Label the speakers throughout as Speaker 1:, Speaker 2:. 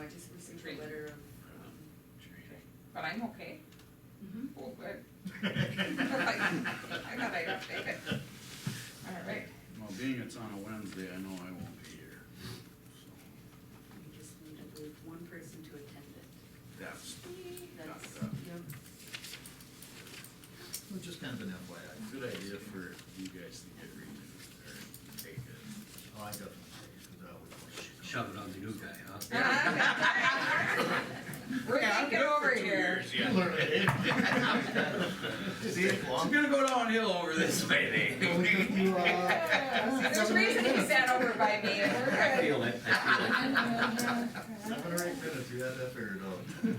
Speaker 1: um,
Speaker 2: but I'm okay.
Speaker 1: Mhm.
Speaker 2: Well, good.
Speaker 3: I
Speaker 2: thought I'd update it. All right.
Speaker 3: Well, being it's on a Wednesday, I know I won't be here, so
Speaker 1: We just need, I believe, one person to attend it.
Speaker 3: that's,
Speaker 1: That's,
Speaker 3: Got that.
Speaker 1: yep.
Speaker 4: Well, Just kind of an FYI.
Speaker 3: a good idea for you guys to get renewed or take it.
Speaker 4: Oh, I definitely, because I always.
Speaker 5: Shove it on the new guy, huh?
Speaker 2: Ah, We're
Speaker 3: Yeah,
Speaker 2: thinking over here.
Speaker 4: You learn it, eh? Just eat it
Speaker 3: It's
Speaker 4: long.
Speaker 3: gonna go downhill over this way, Dave.
Speaker 2: Yeah, see, There's a reason he sat over by me and
Speaker 5: I
Speaker 2: we're good.
Speaker 5: feel it, I feel it.
Speaker 4: Seven or eight minutes, you had that figured out.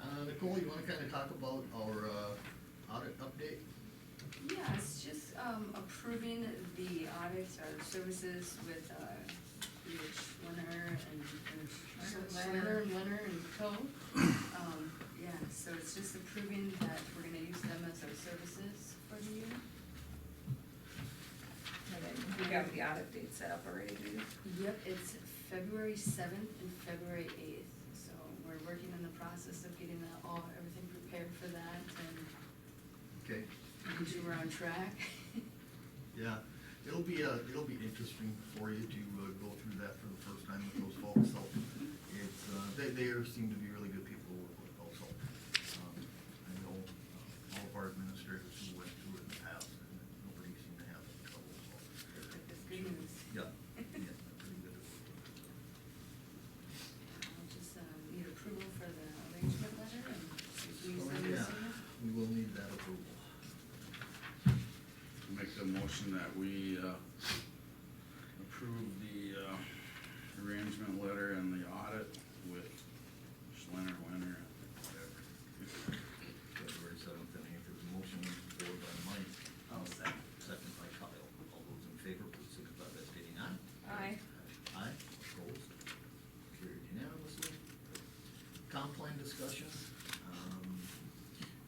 Speaker 4: Uh, Nicole, you wanna kinda talk about our, uh, audit update?
Speaker 1: Yeah, it's just um, approving the audits or services with uh, Rich Winner and and Schlerner and Winner and Co. Um, Yeah, so it's just approving that we're gonna use them as our services for the year.
Speaker 2: And then We got the audit date set up already, do you?
Speaker 1: Yep, it's February seventh and February eighth, so we're working on the process of getting that all, everything prepared for that and
Speaker 4: Okay,
Speaker 1: making sure we're on track.
Speaker 4: yeah, it'll be, uh, it'll be interesting for you to, uh, go through that for the first time with those folks, so. It's, uh, they, they are- seem to be really good people to work with also. Um, I know uh, all of our administrators who went through it in the past, and nobody seemed to have any trouble, so.
Speaker 1: That's good news.
Speaker 4: Yeah, yeah, pretty good. at working.
Speaker 1: I'll just, um, need approval for the arrangement letter and if we
Speaker 4: Oh,
Speaker 1: send
Speaker 4: yeah.
Speaker 1: this to you.
Speaker 4: We will need that approval.
Speaker 3: Make the motion that we, uh, approve the, uh, arrangement letter and the audit with Schlenner Winter, whatever.
Speaker 4: February seventh and eighth is a motion forward by Mike.
Speaker 1: I'll second.
Speaker 4: Second by Kyle. All those in favor, please signify by stating aye.
Speaker 2: Aye.
Speaker 4: Aye, opposed, carried unanimously. Comp plan discussion, um,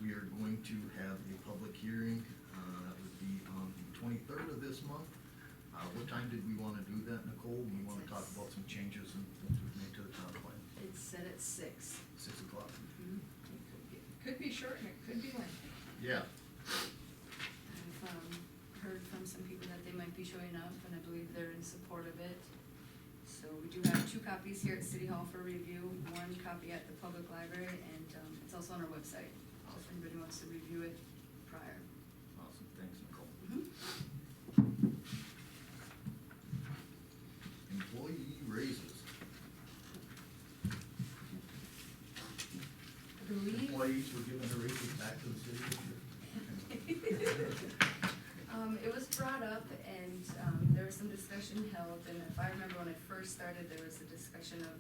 Speaker 4: we are going to have a public hearing, uh, that would be on the twenty-third of this month. Uh, what time did we wanna do that, Nicole? We wanna talk about some changes and things we've made to the comp plan,
Speaker 1: It's set at six.
Speaker 4: six o'clock.
Speaker 1: Mhm.
Speaker 2: Could be short and it could be lengthy.
Speaker 4: Yeah.
Speaker 1: I've, um, heard from some people that they might be showing up, and I believe they're in support of it. So we do have two copies here at City Hall for review, one copy at the public library, and, um, it's also on our website, so if anybody wants to review it prior.
Speaker 4: Awesome, thanks, Nicole.
Speaker 1: Mhm.
Speaker 4: Employee raises.
Speaker 1: I believe,
Speaker 4: Employees were given their raises back to the city this year.
Speaker 1: um, it was brought up, and, um, there was some discussion held, and if I remember when I first started, there was a discussion of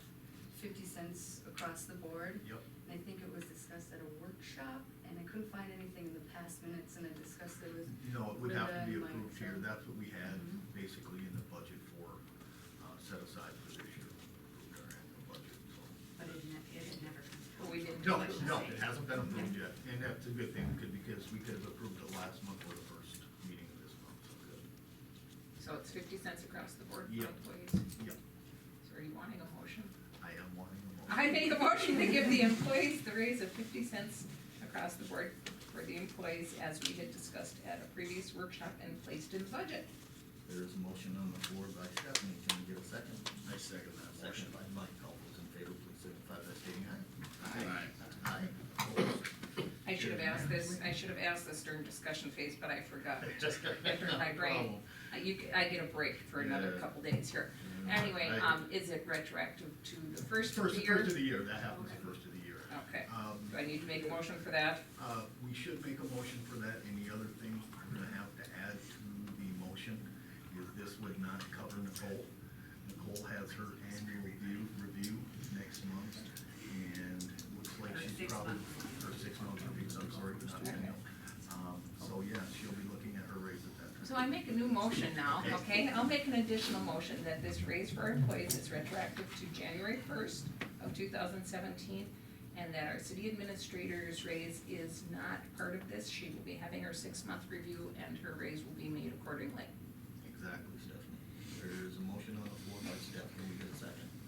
Speaker 1: fifty cents across the board.
Speaker 4: Yep.
Speaker 1: And I think it was discussed at a workshop, and I couldn't find anything in the past minutes, and I discussed it with.
Speaker 4: No, it would have to be
Speaker 1: Brenda and Mike,
Speaker 4: approved here,
Speaker 1: so-
Speaker 4: that's what we had
Speaker 1: Mhm.
Speaker 4: basically in the budget for, uh, set aside for this year. when we approved our annual budget, so.
Speaker 6: But it ne- it had never comes
Speaker 2: But we didn't.
Speaker 4: No,
Speaker 2: touch
Speaker 4: no,
Speaker 2: it.
Speaker 4: it hasn't been approved yet, and that's a good thing, could- because we could have approved it last month or the first meeting of this month, so good.
Speaker 2: So it's fifty cents across the board for
Speaker 4: Yep.
Speaker 2: employees.
Speaker 4: Yep,
Speaker 2: So are you wanting a motion?
Speaker 4: I am wanting a motion.
Speaker 2: I make a motion to give the employees the raise of fifty cents across the board for the employees as we had discussed at a previous workshop and placed in the budget.
Speaker 4: There is a motion on the floor by Stephanie, can we get a second?
Speaker 3: I second that motion.
Speaker 4: Second by Mike, all those in favor, please signify by stating aye.
Speaker 3: Aye.
Speaker 4: Aye, opposed,
Speaker 2: I should have asked this, I should have asked this during discussion phase, but I forgot. It just entered my
Speaker 4: No
Speaker 2: brain.
Speaker 4: problem.
Speaker 2: Uh, You, c- I get a break for another
Speaker 4: Oh. Yeah.
Speaker 2: couple days here.
Speaker 4: Yeah,
Speaker 2: Anyway,
Speaker 4: I-
Speaker 2: um, is it retroactive to the first of
Speaker 4: First,
Speaker 2: the year? Oh.
Speaker 4: first of the year, that happens the first of the year.
Speaker 2: Okay.
Speaker 4: Um,
Speaker 2: Do I need to make a motion for that?
Speaker 4: Uh, we should make a motion for that, and the other thing we're gonna have to add to the motion is this would not cover Nicole. Nicole has her annual review, review next month, and looks like
Speaker 6: Her
Speaker 4: she's
Speaker 6: six
Speaker 4: probably,
Speaker 6: months.
Speaker 4: her six month review, I'm sorry, not annual. Um, so yeah, she'll be looking at her raise at that time.
Speaker 2: So I make a new motion now, okay? I'll make an additional motion that this raise for employees is retroactive to January first of two thousand seventeen, and that our city administrator's raise is not part of this. She will be having her six-month review, and her raise will be made accordingly.
Speaker 4: Exactly, Stephanie. There is a motion on the